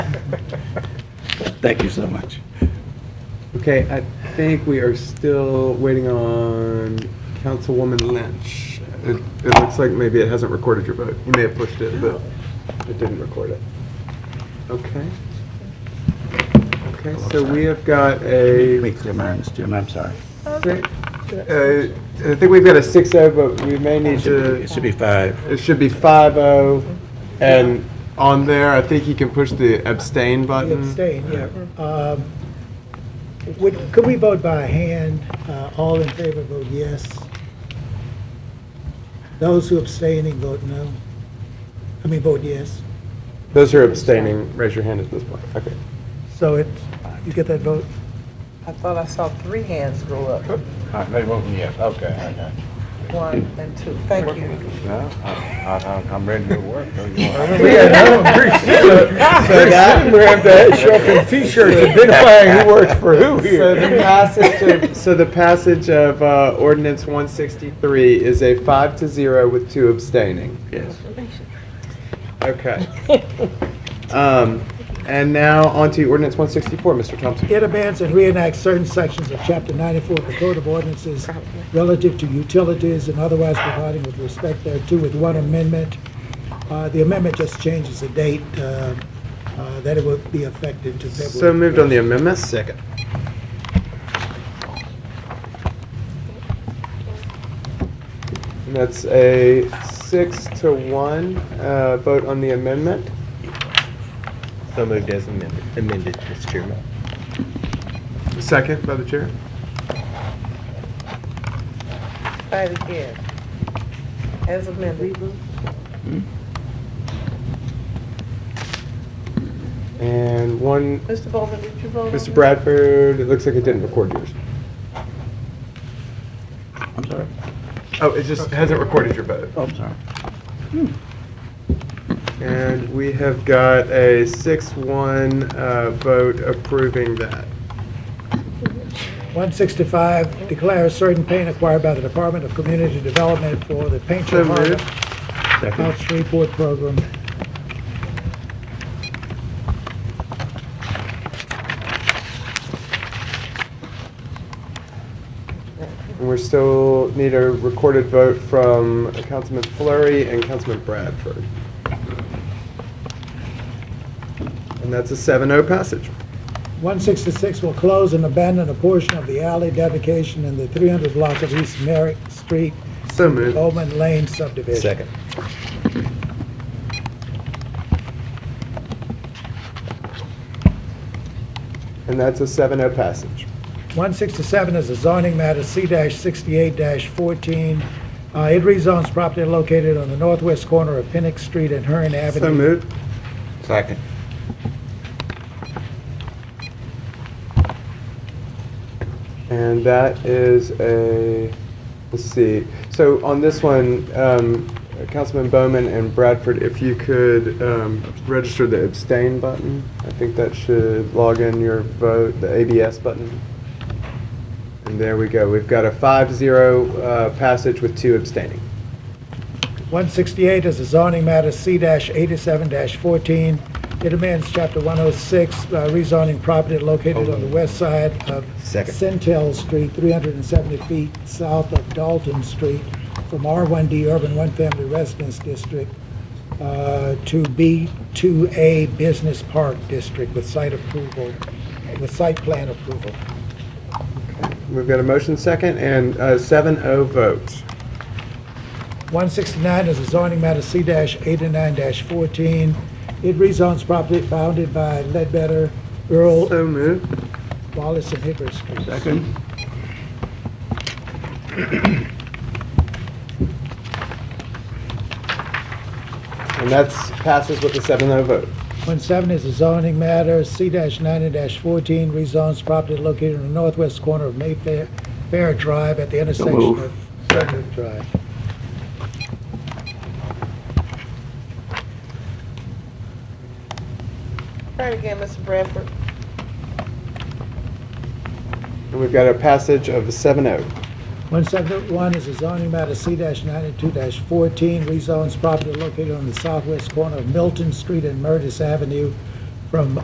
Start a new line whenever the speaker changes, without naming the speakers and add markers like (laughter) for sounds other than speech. Thank you so much.
Okay, I think we are still waiting on Councilwoman Lynch. It, it looks like maybe it hasn't recorded your vote. You may have pushed it, but it didn't record it. Okay. Okay, so we have got a.
Wait, clear my eyes, Jim, I'm sorry.
Six- uh, I think we've got a six oh, but we may
It
need
should be-
to,
it should be five.
it should be five oh. And on there, I think you can push the abstain button.
Abstain, yeah. Um, Would, could we vote by hand? Uh, All in favor vote yes. Those who abstaining vote no. I mean, vote yes.
Those who are abstaining, raise your hand at this point. Okay.
So it, you get that vote?
I thought I saw three hands go up,
They vote yes, okay, I got you.
one and two. Thank you.
I'm ready to work. (laughs)
(laughs) So that-
T-shirts identifying who works for who
So the passage of, so the passage of uh, ordinance 163 is a five to zero with two abstaining.
Yes.
Okay. Um, And now on to ordinance 164, Mr. Thompson.
It amends and reenacts certain sections of Chapter 94 of the Code of Ordinances relative to utilities and otherwise providing with respect thereto with one amendment. Uh, The amendment just changes the date uh, uh, that it would be effective to February.
So moved on the amendment. Second. And that's a six to one uh, vote on the amendment.
So moved as amended, amended, Mr. Chairman.
Second by the chair.
Try it again. As amended.
Hmm?
And one
Mr. Bowman, did you vote on
Mr.
it?
Bradford, it looks like it didn't record yours.
I'm sorry,
Oh, it just hasn't recorded your vote.
oh, I'm sorry.
And we have got a six-one vote approving that.
165, declares certain paint acquired by the Department of Community Development for the Paint
So
Your Heart
moved.
Out
Second.
Shreveport program.
And we still need a recorded vote from Councilman Flurry and Councilman Bradford. And that's a seven-oh passage.
166 will close and abandon a portion of the alley dedication in the 300 block of East Merrick Street,
So moved.
Bowman Lane subdivision.
Second.
And that's a seven-oh passage.
167 is a zoning matter, C-68-14. Uh, It rezones property located on the northwest corner of Pennock Street and Hearn Avenue.
So moved.
Second.
And that is a, let's see, so on this one, um, Councilman Bowman and Bradford, if you could um, register the abstain button, I think that should log in your vote, the ABS button. And there we go, we've got a five-zero uh, passage with two abstaining.
168 is a zoning matter, C-87-14. It amends Chapter 106, uh, rezoning property located on the west side of
Second.
Centel Street, 370 feet south of Dalton Street, from R1D Urban One Family Residence District uh, to B2A Business Park District with site approval, with site plan approval.
We've got a motion second and uh, seven-oh vote.
169 is a zoning matter, C-89-14. It rezones property bounded by Ledbetter, Earl,
So moved.
Wallace, and Hibbert Streets.
Second.
And that's passes with a seven-oh vote.
170 is a zoning matter, C-90-14, rezones property located in the northwest corner of Mayfair Fair Drive at the intersection
moved.
of Fairwood Drive.
Try it again, Mr. Bradford.
And we've got a passage of a oh. seven-oh.
171 is a zoning matter, C-92-14, rezones property located on the southwest corner of Milton Street and Murtis Avenue from